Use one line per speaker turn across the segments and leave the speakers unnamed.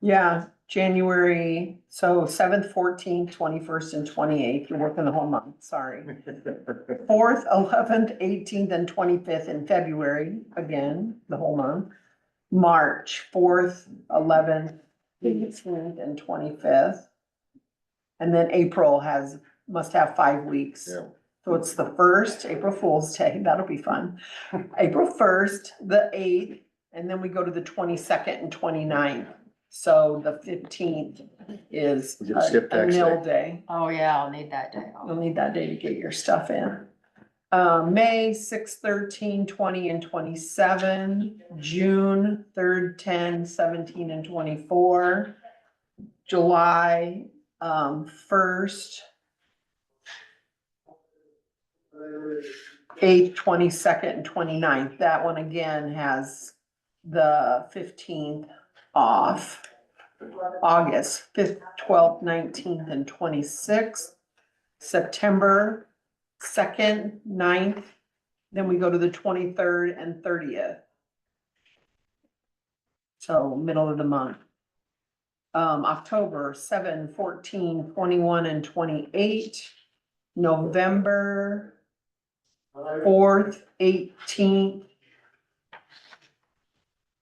Yeah, January, so seventh, fourteenth, twenty-first and twenty-eighth, you're working the whole month, sorry. Fourth, eleventh, eighteenth and twenty-fifth in February, again, the whole month. March, fourth, eleventh, eighteenth and twenty-fifth. And then April has, must have five weeks.
Yeah.
So it's the first, April Fool's Day, that'll be fun. April first, the eighth, and then we go to the twenty-second and 29th. So the fifteenth is
We get a skip
a a
tax
nil day.
Oh, yeah, I'll need that day off.
You'll need that day to get your stuff in. Uh, May 6, 13, 20, and twenty-seven, June third, 10, 17, and twenty-four. July, um, first. Eighth, twenty-second, and 29th. That one again has the fifteenth off. August fifth, twelfth, nineteenth, and twenty-sixth. September second, 9th, then we go to the twenty-third and thirtieth. So middle of the month. Um, October 7, 14, 21, and twenty-eight. November fourth, eighteenth.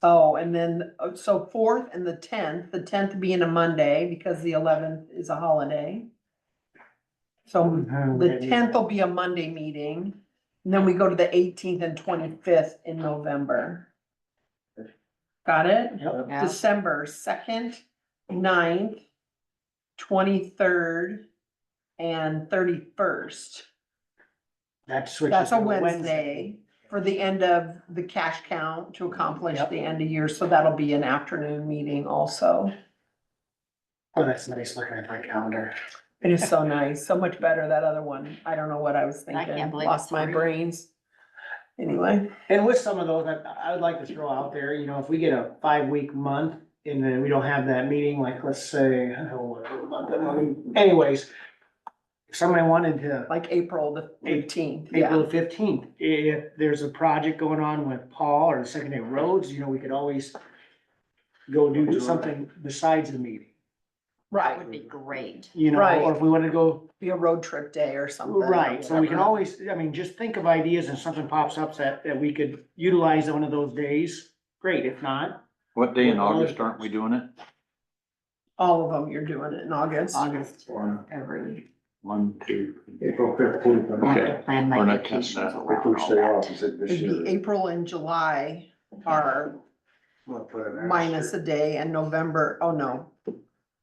Oh, and then, uh, so fourth and the tenth, the tenth being a Monday because the eleventh is a holiday. So
Hmm.
the tenth will be a Monday meeting, and then we go to the eighteenth and twenty-fifth in November. Got it?
Yeah,
December second, 9th, twenty-third, and thirty-first.
That switches.
That's a
to
Wednesday for the end of the cash count to accomplish
Yep.
the end of year, so that'll be an afternoon meeting also.
Oh, that's nice looking at my calendar.
It is so nice, so much better, that other one. I don't know what I was
can't
thinking,
believe
lost
it's
my
free.
brains. Anyway,
And with some of those, I, I would like to throw out there, you know, if we get a five-week month and then we don't have that meeting, like, let's say, I don't know what month that month- anyways. If somebody wanted to,
like April the
Eight-
eighteenth, yeah,
April fifteenth, if there's a project going on with Paul or the secondary roads, you know, we could always go do something besides the meeting,
that
right,
would be great.
you know,
Right.
or if we wanted to go
be a road trip day or something. or
Right, so we can
whatever.
always, I mean, just think of ideas and something pops up that, that we could utilize on one of those days, great, if not.
What day in August aren't we doing it?
All of them, you're doing it in August.
August, every,
One, two.
April fifteenth.
I have
Okay.
to plan
We're
my
not counting
vacations
that.
If
around
we
all
stay off,
that.
is it this
It'd be
year?
April and July are
We'll put it next
minus a
year.
day and November, oh no,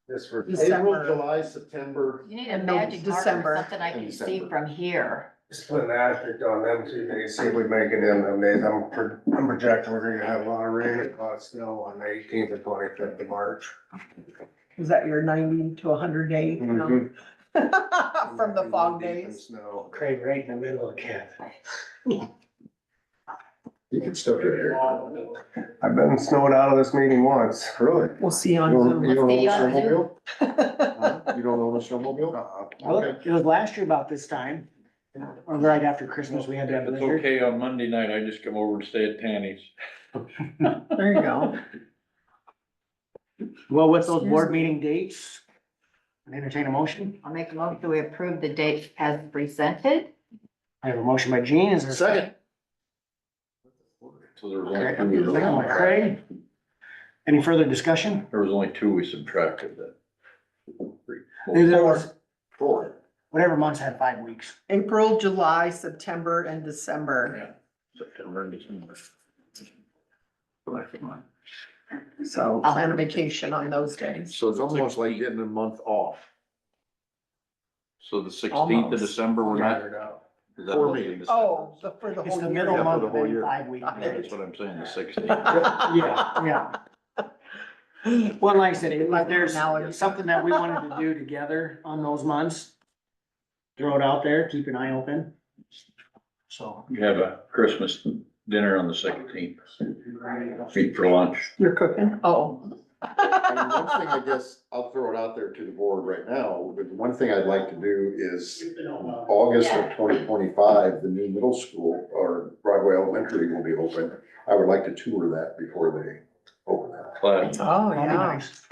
This for
December.
April, July, September.
You need a
And no-
magic marker,
December.
something I
In
can see
December.
from here.
Just put an asterisk on them two days, see if we make it in them days. I'm, pro- I'm projecting we're gonna have a lot of rain, and a lot of snow on the eighteenth and twenty-fifth of March.
is that your ninety to hundred day? No.
Mhm. Mm-hmm.
From the fog
Deep in
days,
Snow.
Craig, right in the middle of camp.
You can still get here. I've been snowed out of this meeting once. Really?
we'll see
You
on
don't,
Zoom.
you don't own a
Let's see on
snowmobile?
Well,
Huh? Uh-huh. You don't own a snowmobile?
Well, it was last year about this time, or right after Christmas, we had to have
It's
it.
okay, on Monday night, I just come over and stay at Tanny's.
There you go.
Well, with those
Excuse
board
me.
meeting dates, I entertain a motion.
I'll make a motion, that we approve the date as presented.
I have a motion by Gene, is there a second?
So there was
Okay,
only
Second
two,
by Craig. Any further discussion?
there was only two we subtracted that.
There was,
Four.
whatever months had five weeks.
April, July, September and December,
September and December.
so plan a vacation on those days.
So it's almost like
getting a month off.
So the sixteenth of
Almost.
December, we're not.
Tired out.
is that
Four
what it
meetings.
is?
Oh, the, for the
It's the
whole
middle
year.
Yeah, for
month
the
of
whole
then
year.
five weeks.
Yeah, That's what I'm saying, the sixteenth.
Yeah, yeah. Well, like I said, if there's
Now it's-
something that we wanted to do together on those months, throw it out there, keep an eye open. So.
You have a Christmas dinner on the sixteenth, meet for lunch.
You're cooking? Oh.
I mean, one thing I guess I'll throw it out there to the board right now, but one thing I'd like to do is August of twenty twenty-five, the new middle school or Broadway Elementary will be open. I would like to tour that before they open that.
Class.
Oh,
that'd be
yeah.
nice.